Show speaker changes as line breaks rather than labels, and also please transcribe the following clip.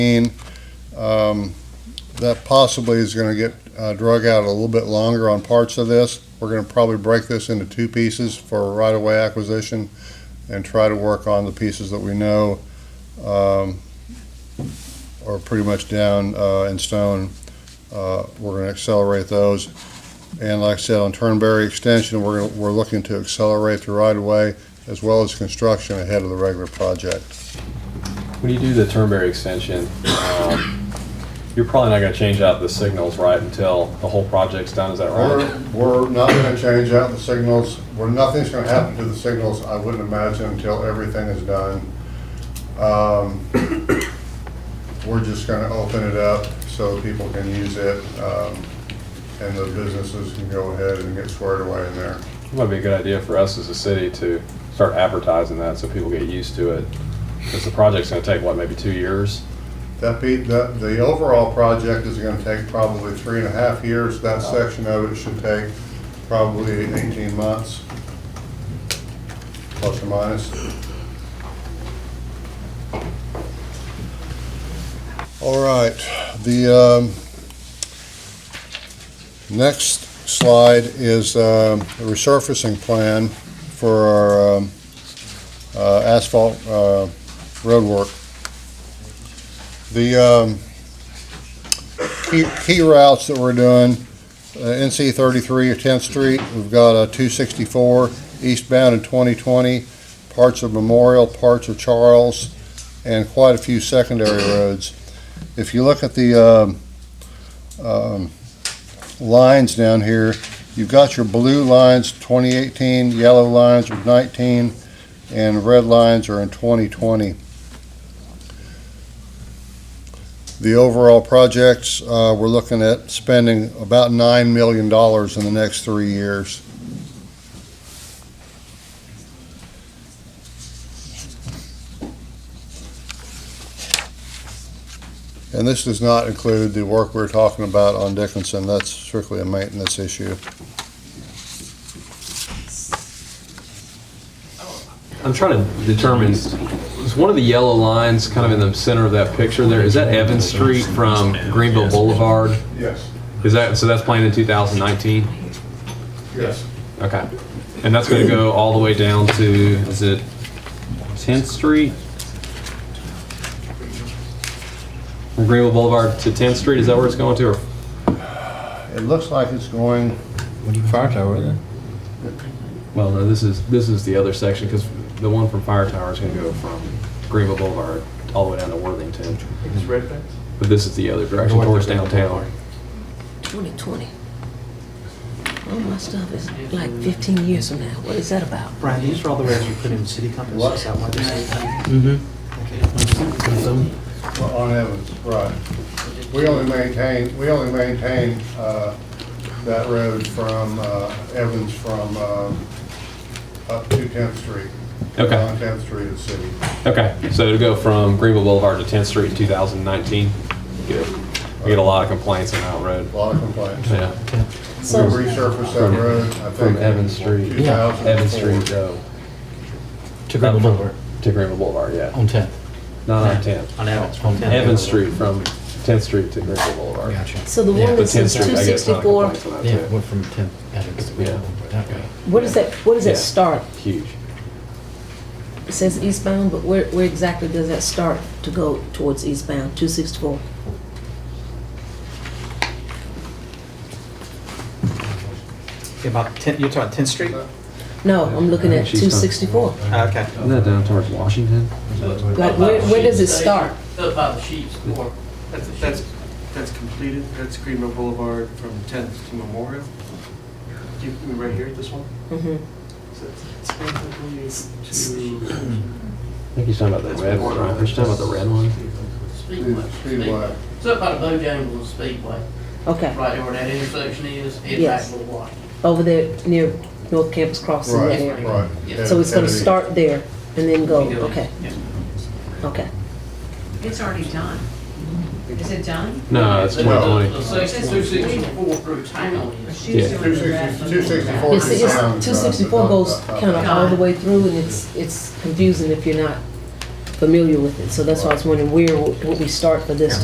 mean, um, that possibly is gonna get uh, drug out a little bit longer on parts of this. We're gonna probably break this into two pieces for right-of-way acquisition and try to work on the pieces that we know um, are pretty much down uh, in stone. Uh, We're gonna accelerate those. And like I said, on Turnberry Extension, we're, gonna- we're looking to accelerate the right-of-way as well as construction ahead of the regular project.
When you do the Turnberry extension, um, you're probably not gonna change out the signals, right, until the whole project's done, is that right?
We're, we're not gonna change out the signals, we're, nothing's gonna happen to the signals, I wouldn't imagine, until everything is done. Um, We're just gonna open it up so people can use it, um, and the businesses can go ahead and get squared away in there.
It might be a good idea for us as a city to start advertising that so people get used to it. Because the project's gonna take, what, maybe two years?
That be, that, the overall project is gonna take probably three and a half years, that section of it should take probably eighteen months, plus or minus. All right, the, um, next slide is, um, the resurfacing plan for our, um, uh, asphalt, uh, roadwork. The um, key key routes that we're doing, uh, NC 33 or 10th Street, we've got uh, 264 eastbound in 2020, parts of Memorial, parts of Charles, and quite a few secondary roads. If you look at the um, um, lines down here, you've got your blue lines, 2018, yellow lines are 19, and red lines are in 2020. The overall projects, uh, we're looking at spending about nine million dollars in the next three years. And this does not include the work we're talking about on Dickinson, that's strictly a maintenance issue.
I'm trying to determine, is one of the yellow lines kind of in the center of that picture there, is that Evans Street from Greenville Boulevard?
Yes,
Is that, so that's planned in 2019?
yes.
Okay. And that's going to go all the way down to, is it 10th Street? From Greenville Boulevard to 10th Street, is that where it's going to? Or
It looks like it's going,
Fire tower there.
Well, no, this is, this is the other section, because the one from Fire Tower is going to go from Greenville Boulevard all the way down to Worthington.
It's red fence?
But this is the other direction towards downtown.
2020. All my stuff is like 15 years from now. What is that about?
Brian, these are all the roads you put in city compass, is that why they're city? Mm-hmm.
Well, On Evans, right. We only maintain, we only maintain uh, that road from uh, Evans from uh, up to 10th Street.
Okay.
On 10th Street at City.
Okay, so it'll go from Greenville Boulevard to 10th Street in 2019? Good. We get a lot of complaints on that road.
A lot of complaints. We
Yeah.
So,
resurfaced that road, I think.
From Evans Street.
Yeah.
Evans Street, though.
To Greenville Boulevard
To Greenville Boulevard, yeah.
on 10th.
Not on 10th.
On Evans, from town.
Evans Street from 10th Street to Greenville Boulevard.
so the
Yeah,
one
But
that
10th
says
Street, I guess, not
264,
complaints on
Yeah,
that
it
too.
went from 10th. Evans.
Yeah.
Okay.
what does that, what does
Yeah.
that start?
Huge.
It says eastbound, but where, where exactly does that start to go towards eastbound, 264?
About 10, you're talking 10th Street?
No, I'm looking at
Yeah, she's done.
264.
Ah, Okay.
Isn't that down towards Washington?
Like, where, where does it start?
Up by the sheep's door.
That's, that's, that's completed, that's Greenville Boulevard from 10th to Memorial. Do you, we right here at this one?
Mhm.
So it's basically to-
I think he's talking about the red one, right? He's talking about the red one?
Speedway.
Speedway.
It's up by the Bojangles Speedway,
Okay,
right there where that intersection is, head back
Yes.
to the water.
over there near North Campus Crossing that
Right,
area.
right.
Yeah.
So it's gonna
Kennedy.
start there and then go,
You know,
okay,
yeah.
okay.
It's already done. Is it done?
No, it's
The- The
2020.
section two sixty-four through town
Or
is,
she's
Yeah.
doing the rest of
260
it?
264
It's,
is
it's,
down, uh,
264 goes
uh, uh,
kind of all the way through, and it's, it's confusing if you're not familiar with it, so that's why I was wondering where, would would we start for this